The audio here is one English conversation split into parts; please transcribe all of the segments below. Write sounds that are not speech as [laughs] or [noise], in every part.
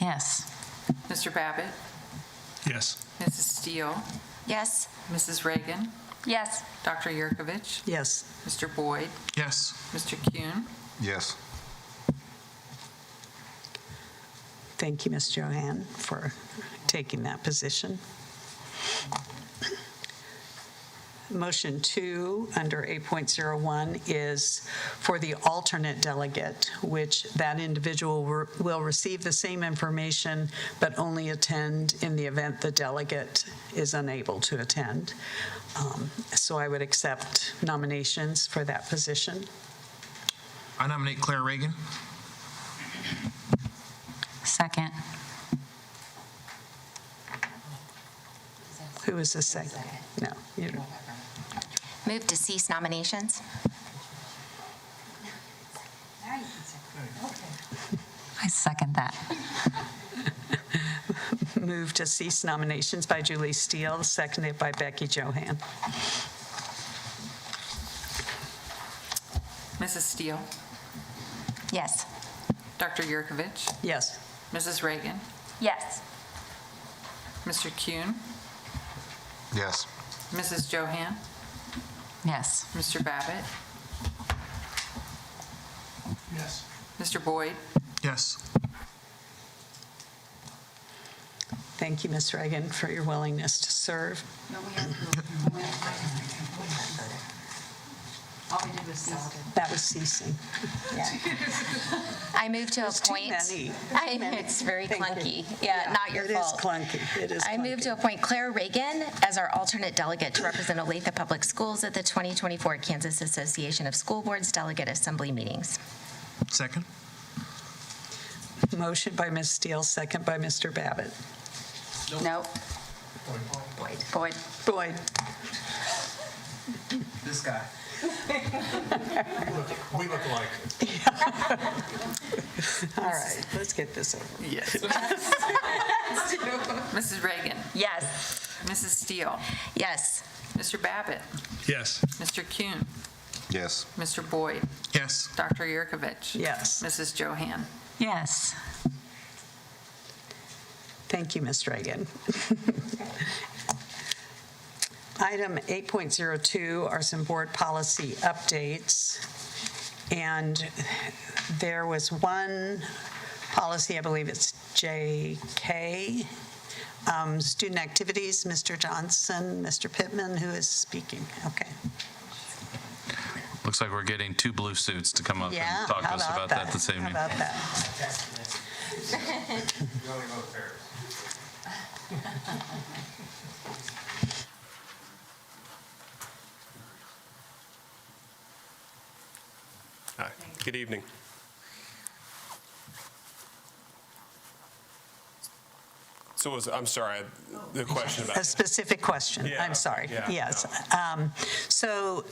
Yes. Mr. Babbitt, Yes. Mrs. Steele, Yes. Mrs. Reagan, Yes. Dr. Yurkovich, Yes. Mr. Boyd, Yes. Mr. Kuhn, Yes. Thank you, Ms. Johann, for taking that position. Motion two, under 8.01, is for the alternate delegate, which that individual wer- will receive the same information but only attend in the event the delegate is unable to attend. Um, So I would accept nominations for that position. I nominate Claire Reagan. Second. Who is the second? No, you don't. Move to cease nominations. I second that. Move to cease nominations by Julie Steele, seconded by Becky Johann. Mrs. Steele, Yes. Dr. Yurkovich, Yes. Mrs. Reagan, Yes. Mr. Kuhn, Yes. Mrs. Johann, Yes. Mr. Babbitt, Yes. Mr. Boyd, Yes. Thank you, Ms. Reagan, for your willingness to serve. That was ceasing. I move to There's too appoint. many. [laughs] I know, it's very Thank clunky. you. Yeah, not your It is fault. clunky. It is I move clunky. to appoint Claire Reagan as our alternate delegate to represent Olathe Public Schools at the 2024 Kansas Association of School Boards Delegate Assembly meetings. Second? Motion by Ms. Steele, second by Mr. Babbitt. No. Boyd. Boyd. Boyd, This guy. We look alike. all right, let's get this over. with. Mrs. Reagan, Yes. Mrs. Steele, Yes. Mr. Babbitt, Yes. Mr. Kuhn, Yes. Mr. Boyd, Yes. Dr. Yurkovich, Yes. Mrs. Johann. Yes. Thank you, Ms. Reagan. [laughs] Item 8.02 are some board policy updates. And there was one policy, I believe it's JK, um, student activities, Mr. Johnson, Mr. Pittman, who is speaking? Okay. Looks like we're getting two blue suits to come up Yeah, and talk to how us about that this evening. How about that? We only vote fair. Hi, good evening. So was, I'm sorry, the question about. A specific question, Yeah, I'm sorry. yeah, Yes. Um, So,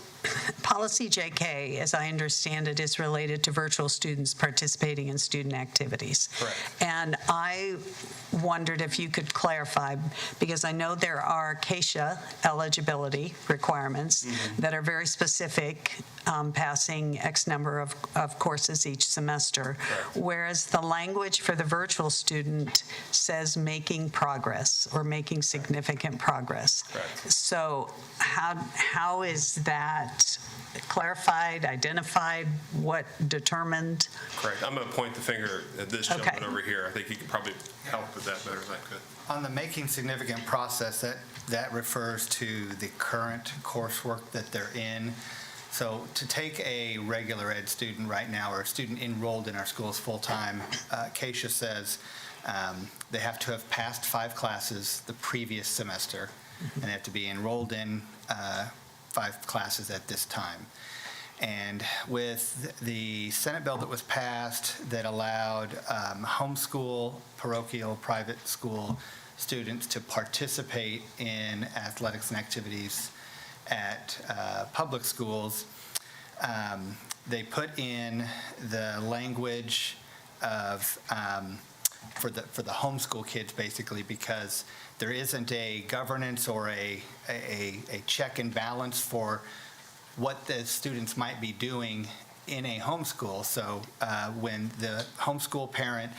policy JK, as I understand it, is related to virtual students participating in student activities. Correct. And I wondered if you could clarify, because I know there are CASHA eligibility requirements Mm-hmm. that are very specific, um, passing X number of, of courses each semester. Whereas the language for the virtual student says making progress or making significant progress. Correct. So how, how is that clarified, identified, what determined? Correct, I'm going to point the finger at this Okay. gentleman over here. I think he could probably help with that better than I could. On the making significant process, that, that refers to the current coursework that they're in. So to take a regular ed student right now, or a student enrolled in our schools full-time, uh, Keisha says um, they have to have passed five classes the previous semester, and they have to be enrolled in uh, five classes at this time. And with the Senate bill that was passed that allowed um, homeschool, parochial, private school students to participate in athletics and activities at uh, public schools, um, they put in the language of, um, for the, for the homeschool kids, basically, because there isn't a governance or a, a, a check and balance for what the students might be doing in a homeschool. So uh, when the homeschool parent